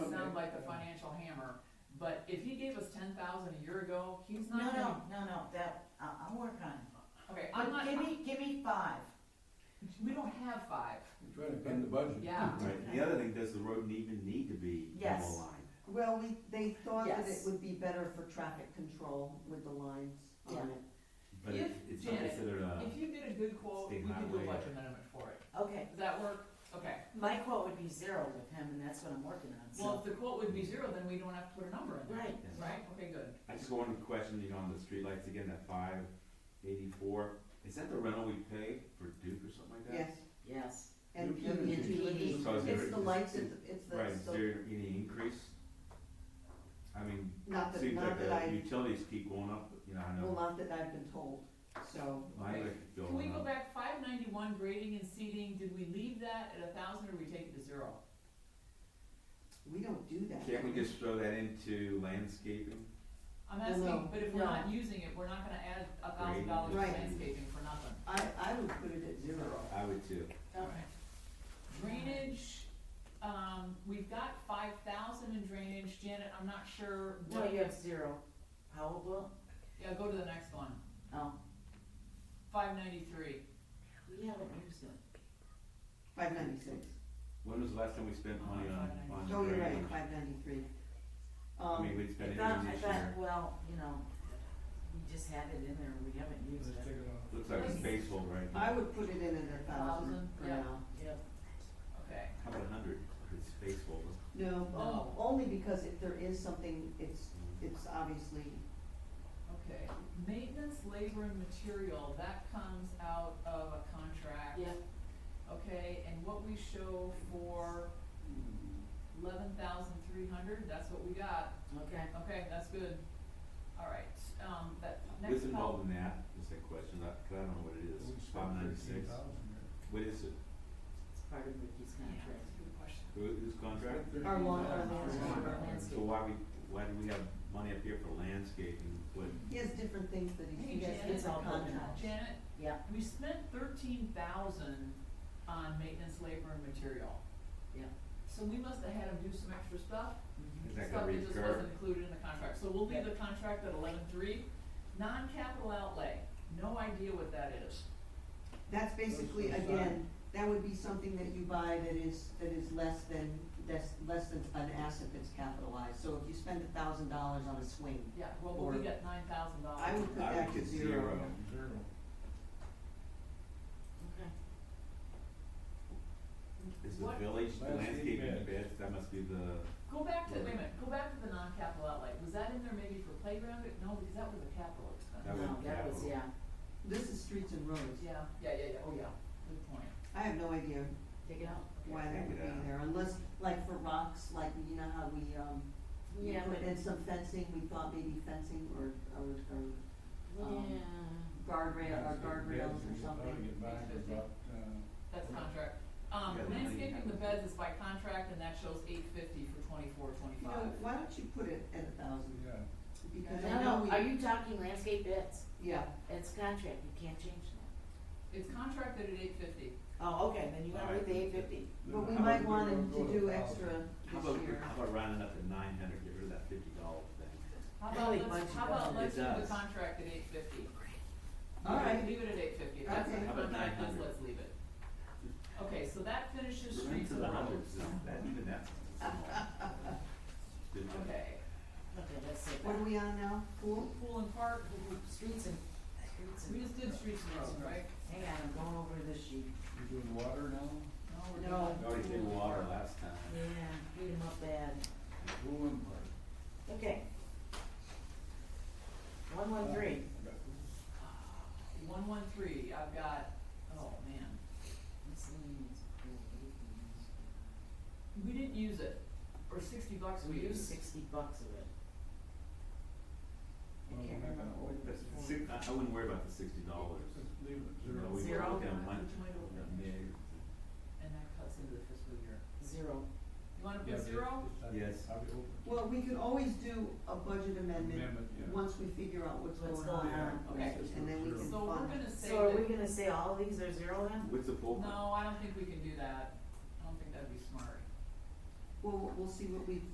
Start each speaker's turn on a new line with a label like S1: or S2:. S1: But if he gave us ten thousand a year ago, he's
S2: No,
S1: not
S2: no,
S1: gonna,
S2: no, no, that, I- I'll work on it.
S1: okay, I'm not,
S2: Give me, give me five.
S1: we don't have five,
S3: We're Trying to bend the budget.
S1: yeah.
S4: Right, the other thing, does the road even need to be
S2: Yes.
S4: double lined?
S5: Well, we, they thought that it
S2: Yes.
S5: would be better for traffic control with the lines on
S2: Yeah.
S5: it.
S4: But
S1: If-
S4: it- it's uh, not
S1: Janet,
S4: considered a,
S1: If you get a good quote, we
S4: State
S1: can do a
S4: highway.
S1: budget amendment for it.
S2: Okay,
S1: Does that work? Okay.
S2: my quote would be zero with him, and that's what I'm working on,
S1: Well,
S2: so.
S1: if the quote would be zero, then we don't have to put a number in there,
S2: Right,
S1: right? Okay, good.
S4: I just got one question, you know, on the streetlights again, that five eighty-four, is that the rental we pay for Duke or something like that?
S5: Yes,
S2: yes.
S5: and
S3: You can-
S5: PG&E,
S4: Because there
S5: it's the
S4: is-
S5: lights, at the- it's
S4: Right, is
S5: the, so,
S4: there any increase? I mean,
S5: not that,
S4: seems
S5: not
S4: like
S5: that
S4: the
S5: I,
S4: utilities keep going up, you know, I
S5: well,
S4: know,
S5: not that I've been told, so.
S4: my electric bill
S1: Can we
S4: went
S1: go
S4: up.
S1: back, five ninety-one grading and seating, did we leave that at a thousand or we take it to zero?
S5: We don't do that.
S4: Can't we just throw that into landscaping?
S1: I'm
S5: No,
S1: asking,
S5: no,
S1: but if we're
S5: no.
S1: not using it, we're not gonna add a thousand
S4: Grading,
S1: dollars to
S5: Right.
S1: landscaping for nothing.
S5: I, I would put it at zero.
S4: I would too.
S2: Okay.
S1: Drainage, um, we've got five thousand in drainage, Janet, I'm not sure
S2: No,
S1: what,
S2: you have zero. How will?
S1: yeah, go to the next one,
S2: Oh,
S1: five ninety-three.
S2: we haven't used it.
S5: Five ninety-six.
S4: When was the last time we spent money on, on
S5: Oh, you're right,
S4: drainage?
S5: five ninety-three.
S4: I mean,
S5: Um,
S4: we'd spend
S2: I
S4: it
S2: thought,
S4: even
S2: I
S4: this
S2: thought,
S4: year.
S2: well, you know, we just had it in there, we haven't used it.
S3: Let's take it off.
S4: Looks like a space hole right now.
S5: I would put it in at a thousand
S1: Thousand,
S5: for
S1: yeah.
S5: now.
S2: Yep.
S1: Okay,
S4: How about a hundred, it's space hole.
S5: No, um,
S1: Oh.
S5: only because if there is something, it's, it's obviously,
S1: okay, maintenance, labor and material, that comes out of a contract.
S2: Yep.
S1: Okay, and what we show for eleven thousand three hundred, that's what we got,
S2: Okay.
S1: okay, that's good. All right, um, that next.
S4: What's
S1: pol-
S4: involved in that, is that question, I, cause I don't know what it is,
S3: We spent
S4: five ninety-six,
S3: 13,000 there.
S4: what is it,
S2: It's part of Ricky's
S1: Yeah,
S2: contract.
S1: that's a good question.
S4: who, whose contract?
S3: Spent
S5: Our lawn- our
S3: 13,000.
S2: lawn- our lawn.
S4: So why we, why do we have money up here for landscaping, what,
S5: he has different things that
S1: Hey,
S5: he, he has
S1: Janet.
S5: different
S2: It's all
S5: contracts.
S1: Janet,
S2: Yeah,
S1: we spent thirteen thousand on maintenance, labor and material.
S2: Yeah.
S1: So we must have had him do some extra stuff,
S4: is that
S1: stuff
S4: gonna
S1: that just
S4: recur?
S1: wasn't included in the contract, so we'll leave the contract at eleven three. Non-capital outlay, no idea what that is.
S5: That's basically,
S3: Those are
S5: again, that would be something that you buy that is, that is less than, that's less than an asset that's capitalized. So if you spend a thousand dollars on a swing,
S1: Yeah, well, but
S5: Or-
S1: we got nine thousand dollars.
S5: I would put
S4: I
S5: that
S4: would
S5: to
S4: get
S5: zero.
S4: zero.
S3: Zero.
S2: okay.
S4: Is the
S1: What-
S4: village
S3: Landscape
S4: landscaping
S3: beds.
S4: bids, that must be the,
S1: Go back to, wait a minute, go back to the non-capital outlay, was that in there maybe for playground, no, because that was a capital
S4: That
S1: expense.
S4: was
S2: No, that was,
S4: capital.
S2: yeah,
S5: This is streets and roads.
S1: Yeah, yeah, yeah, yeah, oh yeah, good point.
S5: I have no idea
S2: take it out.
S5: why that would be
S4: Yeah.
S5: there, unless, like for rocks, like, you know how we, um, we
S2: Yeah,
S5: put
S2: but-
S5: in some fencing, we thought maybe fencing or, or, or
S2: um, Yeah.
S5: guardrail, or guardrails
S3: Landscape beds,
S5: or
S3: we could Probably
S5: something.
S3: get back to about, uh,
S1: That's contract. Um,
S4: Yeah, the money
S1: landscaping the
S4: happens.
S1: beds is by contract and that shows eight fifty for twenty-four,
S5: You
S1: twenty-five.
S5: know, why don't you put it at a thousand?
S3: yeah.
S5: Because I
S2: No,
S5: know
S2: no, are
S5: we,
S2: you talking landscape bits?
S5: yeah,
S2: It's contract, you can't change that.
S1: It's contracted at eight fifty.
S2: Oh, okay, then you
S4: All
S2: gotta
S4: right.
S2: leave the eight fifty.
S5: but we
S3: How
S5: might
S3: would
S5: want
S3: go-
S5: him
S3: go
S5: to do
S3: a
S5: extra
S3: thousand?
S4: how
S5: this
S4: about,
S5: year.
S4: how about rounding up to nine hundred, get rid of that fifty dollar thing?
S1: How
S2: Really,
S1: about
S2: why'd
S1: let's,
S2: you
S1: how about
S2: go?
S1: let's
S4: It
S1: leave the
S4: does.
S1: contract at eight fifty?
S5: All right.
S1: Leave it at eight fifty. That's
S5: Okay.
S1: what the
S4: How about
S1: contract is,
S4: 900?
S1: let's leave it. Okay, so that finishes
S4: We're into
S1: streets and
S4: the
S1: roads.
S4: hundreds, now. that, even that's small. Good job.
S1: Okay,
S2: Okay, that's it.
S5: What are we on now, pool?
S1: pool and park,
S2: Streets and, streets
S1: we
S2: and,
S1: just did streets and roads, right?
S2: hang on, I'm going over this sheet.
S3: You're doing water now,
S1: No, we're
S5: No.
S1: doing
S4: We already did
S1: pool and
S4: water
S1: park.
S4: last time.
S2: Yeah, beat 'em up bad.
S3: pool and park.
S2: Okay. One, one, three.
S3: I got this.
S1: Ah, One one three, I've got, oh man,
S2: Miscellaneous, pool, eighteen.
S1: we didn't use it, or sixty bucks we
S2: We used
S1: used.
S2: sixty bucks of it. I
S3: Well,
S2: can't
S3: we're not
S2: remember
S3: gonna
S2: what it
S3: hold
S2: was
S3: it.
S2: for.
S4: Six, I, I wouldn't worry about the sixty dollars.
S3: Just leave it
S4: You know, we
S3: zero.
S2: Zero.
S4: broke down one,
S1: Tomato.
S4: yeah,
S1: And that cuts into the fiscal year.
S2: Zero.
S1: You wanna
S3: Yeah,
S1: put zero?
S3: it's-
S4: Yes.
S3: it's- I'll be open.
S5: Well, we could always do a budget amendment
S3: Amendment, yeah.
S5: once we figure out what's
S2: What's
S5: going
S2: going
S5: on.
S2: on.
S3: Yeah,
S1: Okay.
S3: it's just
S5: And then we
S3: zero.
S5: can-
S1: So we're gonna say
S2: So are we
S1: that,
S2: gonna say all these are zero then?
S4: What's the full?
S1: no, I don't think we can do that. I don't think that'd be smart.
S5: Well, we'll see what we,